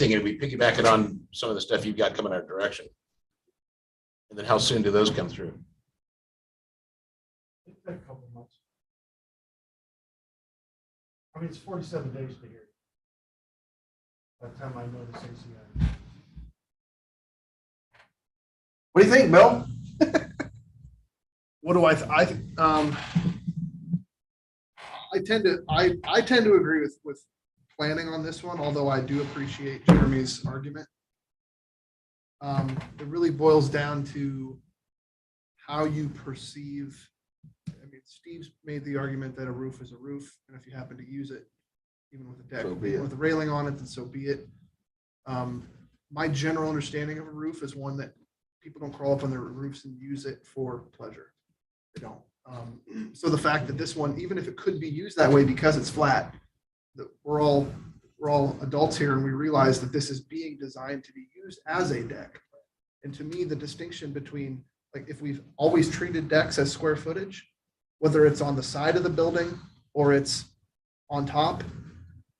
thinking we piggyback it on some of the stuff you've got coming our direction. And then how soon do those come through? It's been a couple of months. I mean, it's forty-seven days to hear. By the time I know this ACI. What do you think, Bill? What do I, th- I, th- um, I tend to, I, I tend to agree with, with planning on this one, although I do appreciate Jeremy's argument. Um, it really boils down to how you perceive, I mean, Steve's made the argument that a roof is a roof, and if you happen to use it, even with a deck, So be it. with a railing on it, then so be it. Um, my general understanding of a roof is one that people don't crawl up on their roofs and use it for pleasure. They don't. Um, so the fact that this one, even if it could be used that way because it's flat, that we're all, we're all adults here and we realize that this is being designed to be used as a deck. And to me, the distinction between, like, if we've always treated decks as square footage, whether it's on the side of the building or it's on top,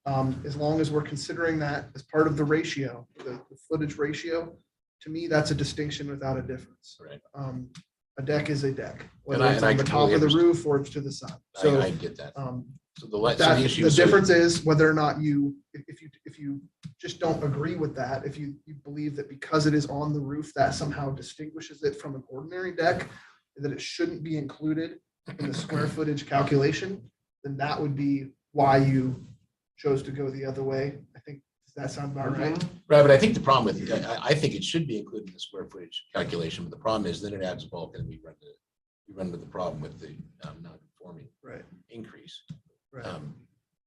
um, as long as we're considering that as part of the ratio, the the footage ratio, to me, that's a distinction without a difference. Right. Um, a deck is a deck, whether And I- it's and I on the top completely of the understand. roof or it's to the side. I- I, So, get that. um, So the, le- so that, the issue. the so- difference is whether or not you, if if you, if you just don't agree with that, if you, you believe that because it is on the roof, that somehow distinguishes it from an ordinary deck, that it shouldn't be included in the square footage calculation, then that would be why you chose to go the other way. I think, does that sound about right? Right, but I think the problem with, I, I- I think it should be included in the square footage calculation, but the problem is then it adds bulk and we run the, we run into the problem with the um, non-conforming Right. increase. Right. Um,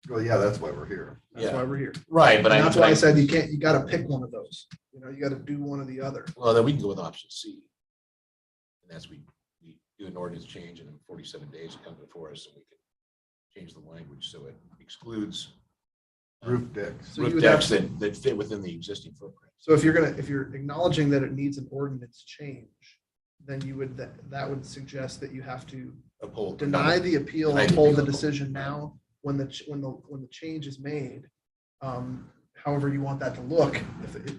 Well, yeah, that's why we're here. That's Yeah. why we're here. Right, but I. And that's why I but said you can't, you gotta pick one of those. You know, you gotta do one or the other. Well, then we can go with option C. And that's we, we do an ordinance change and in forty-seven days it comes before us and we can change the language so it excludes Roof decks. So you roof would have decks that, that fit within the existing footprint. So if you're gonna, if you're acknowledging that it needs an ordinance change, then you would, that, that would suggest that you have to Uphold. deny the appeal, Deny the hold the appeal. decision now, when the, ch- when the, when the change is made. Um, however you want that to look, if it,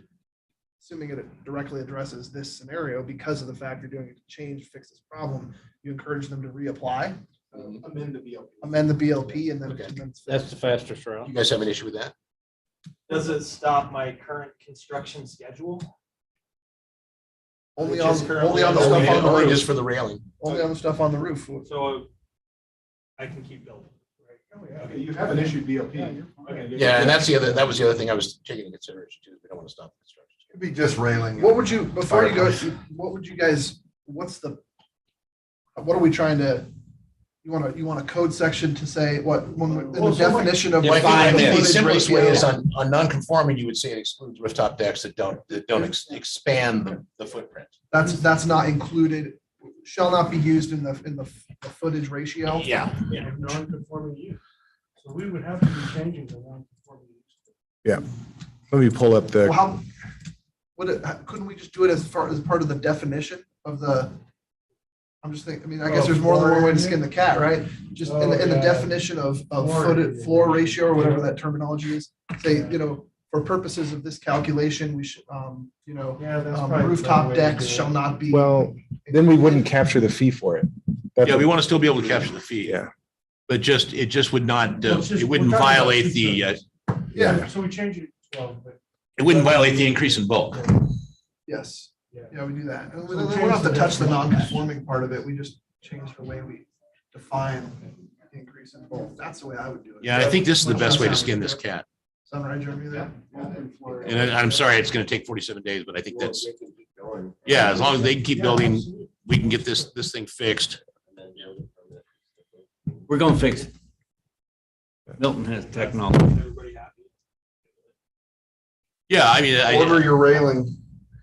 assuming it directly addresses this scenario, because of the fact you're doing a change, fix this problem, you encourage them to reapply, Um, Amend the BLP. amend the BLP and then. Okay. and then it's That's the fastest You route. guys have an issue with that? Does it stop my current construction schedule? Only Which on, is only currently on the Only stuff on the only just roof, for the railing. only on the stuff on the roof. So I can keep building. right? Okay, you haven't issued BLP. Yeah, and that's the other, that was the other thing I was taking into consideration too, is we don't want to stop the construction. It'd be just railing. What would you, before you go, what would you guys, what's the, what are we trying to, you want to, you want a code section to say what, when, in the Well, so what- definition of. Well, I like think- I think the footage simplest way ratio, is on, on non-conforming, you would say it excludes rooftop decks that don't, that don't ex- expand the, the footprint. That's, that's not included, shall not be used in the, in the the footage ratio. Yeah. Non-conforming use. So we would have to be changing the non-conforming use. Let me pull up Well, the, how, what, couldn't we just do it as far, as part of the definition of the? I'm just thinking, I mean, I guess there's more than one way to skin the cat, right? Just in, the- in the Oh, yeah. definition of, of Floor footed, area. floor ratio or whatever that terminology is. Say, you know, for purposes of this calculation, we should, um, you know, Yeah, that's um, probably. the rooftop way to decks do it. shall not be. well, then we wouldn't capture the fee for it. That's Yeah, we what- want to still be able to capture the fee. Yeah. But just, it just would not, Well, uh, it's just- it wouldn't we're talking about violate two the, uh, things. Yeah. So we change it to twelve, but. it wouldn't violate the increase in bulk. Yes, Yeah. yeah, we do that. And we So don't we change don't have to the touch the definition. non-conforming part of it. We just change the way we define the increase in both. That's the way I would do it. Yeah, I think this is the Which best way to sounds skin this good. cat. Sound right, Jeremy, there? And I- I'm sorry, it's going to take 47 days, but I think that's, yeah, as long as they can keep Yeah, building, absolutely. we can get this, this thing fixed. We're gonna fix it. Milton has technology. Everybody happy? Yeah, I mean, Order I, your railing.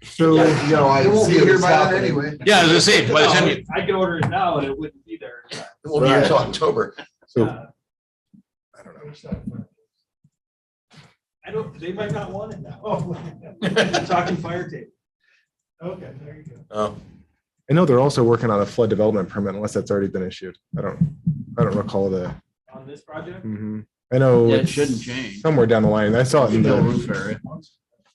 So, You know, I It won't see be here it's by then happening. anyway. yeah, as I say, by the time you, Um, I could order it now and it wouldn't be there. in time. It won't be here until October. so Uh, I don't know. I don't, they might not want it now. Oh, We're Talking fire tape. okay, there you go. Oh, I know they're also working on a flood development permit unless that's already been issued. I don't, I don't recall the, on this project? Mhm. I know. Yeah, it it's shouldn't change. Somewhere down the line. I saw it in No the, roof area.